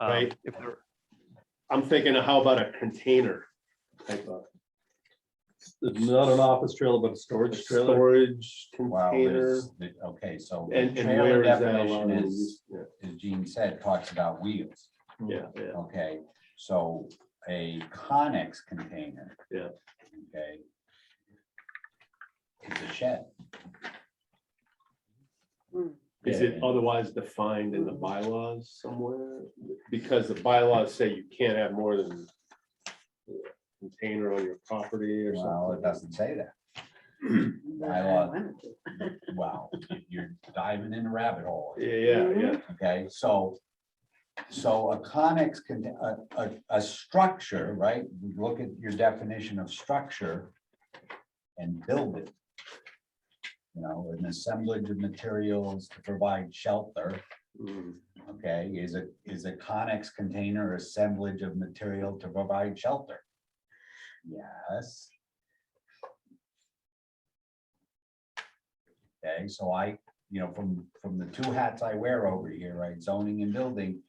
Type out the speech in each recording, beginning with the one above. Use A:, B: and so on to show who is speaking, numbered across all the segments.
A: um,
B: Right.
A: If they're,
B: I'm thinking, of how about a container? type of
C: Not an office trailer, but a storage trailer.
B: Storage
D: Wow,
B: container.
D: there's, the- okay, so the
B: And, and where
D: trailer
B: is that allowed?
D: definition
B: to be
D: is,
B: used? Yeah,
D: as Gene said, talks about wheels,
B: Yeah,
D: Hmm.
B: yeah,
D: okay? So a Conex container.
B: Yeah.
D: Okay. It's a shed.
B: is it otherwise defined in the bylaws somewhere? Because the bylaws say you can't have more than a container on your property or
D: Well, it
B: something.
D: doesn't say that.
E: I wanted to.
D: Wow, you're diving in a rabbit hole.
B: Yeah, yeah, yeah.
D: Okay, so, so a conex can, a, a, a structure, right? You Look at your definition of structure and build it. You know, an assemblage of materials to provide shelter,
B: Mm,
D: okay, is a, is a conex container assemblage of material to provide shelter? Yes. Okay, so I, you know, from, from the two hats I wear over here, right, zoning and building.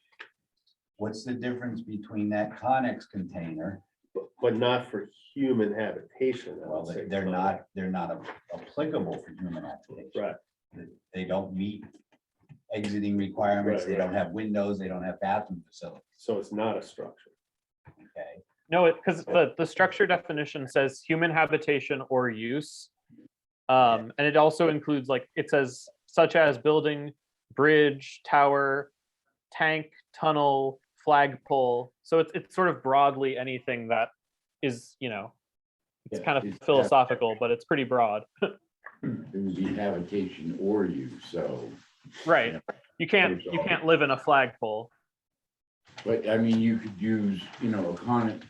D: What's the difference between that conex container?
B: But, but not for human habitation. I would
D: Well,
B: say,
D: they- they're
B: so.
D: not, they're not applicable for human application.
B: Right.
D: They don't meet exiting requirements,
B: Right,
D: they don't
B: right.
D: have windows, they don't have bathroom facilities,
B: So it's not a structure.
D: okay?
A: no, it, because the, the structure definition says human habitation or use. Um, and it also includes like, it says such as building, bridge, tower, tank, tunnel, flagpole. So it's, it's sort of broadly anything that is, you know, it's
D: Yeah,
A: kind
D: it's-
A: of philosophical, but it's pretty broad.
F: It would be habitation or use, so,
A: Right. You can't, you can't live in a flagpole.
F: but I mean, you could use, you know, a conex.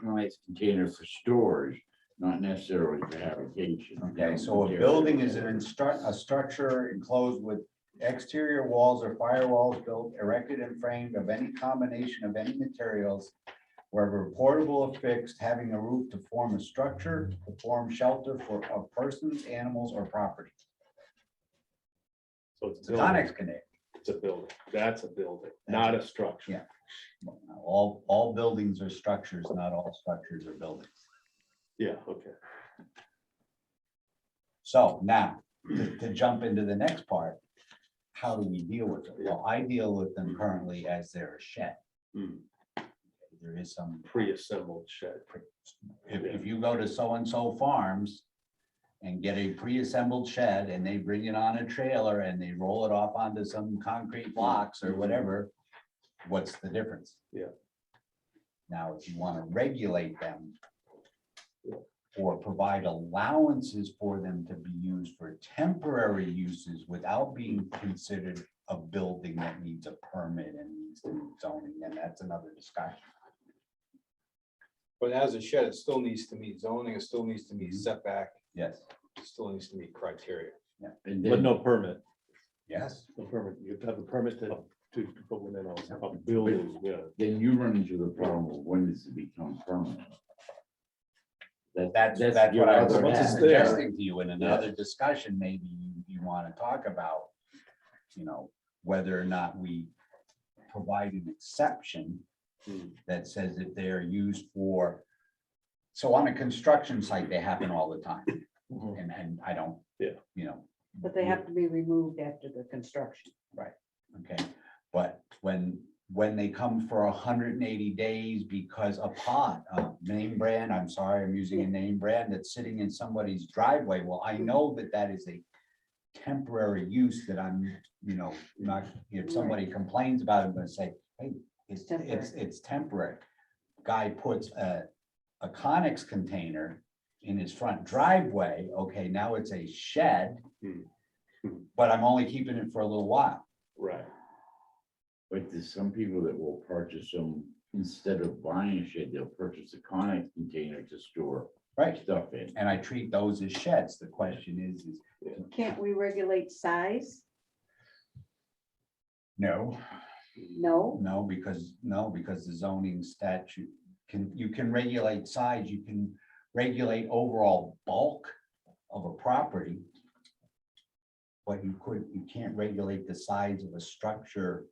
F: Conex container for storage, not necessarily for habitation.
D: Okay, so a building is an instru- a structure enclosed with exterior walls or firewalls built, erected and framed of any combination of any materials. Wherever portable or fixed, having a roof to form a structure, to form shelter for a persons, animals, or property.
B: So it's.
D: It's
B: a
D: a
B: building.
D: Conex container.
B: It's a building. That's a building, not a structure.
D: Yeah. All, all buildings are structures, not all structures are buildings.
B: Yeah, okay.
D: So now, to to jump into the next part, how do we deal with it? Well, I deal with them currently as they're a shed.
B: Mm,
D: There is some,
B: Pre-assembled shed.
D: if, if you go to so-and-so farms and get a pre-assembled shed and they bring it on a trailer and they roll it off onto some concrete blocks or whatever, what's the difference?
B: Yeah.
D: Now, if you want to regulate them
B: Yeah.
D: or provide allowances for them to be used for temporary uses without being considered a building that needs a permit and needs to meet zoning, then that's another discussion.
G: But as a shed, it still needs to meet zoning, it still needs to meet setback,
D: Yes,
G: it still needs to meet criteria.
F: And
C: But
F: then,
C: no permit,
D: yes.
C: no permit. You have to have a permit to, to put one in also.
B: A building, yeah.
F: then you run into the problem of when does it become permanent? That-
D: That's, that's what
F: your
D: I was
F: other
C: Once it's
F: hand.
C: there.
D: suggesting to you in another discussion, maybe you, you want to talk about, you know, whether or not we provide an exception
B: Hmm.
D: that says if they are used for, so on a construction site, they happen all the time.
C: Mhm.
D: And, and I don't.
B: Yeah.
D: You know,
E: But they have to be removed after the construction.
D: okay, but when, when they come for hundred and eighty days because a pot, a name brand, I'm sorry, I'm using a name brand that's sitting in somebody's driveway, well, I know that that is a temporary use that I'm, you know, not, if somebody complains about it, I'm gonna say, hey, it's, it's,
E: Temporary.
D: it's temporary. Guy puts a, a Conex container in his front driveway, okay, now it's a shed,
B: Hmm. Hmm.
D: but I'm only keeping it for a little while.
B: Right.
F: But there's some people that will purchase them, instead of buying a shed, they'll purchase a conex container to store
D: Right.
F: stuff in.
D: And I treat those as sheds. The question is, is
E: Can't we regulate size?
D: no,
E: No,
D: no, because, no, because the zoning statute can, you can regulate size, you can regulate overall bulk of a property. But you could, you can't regulate the size of a structure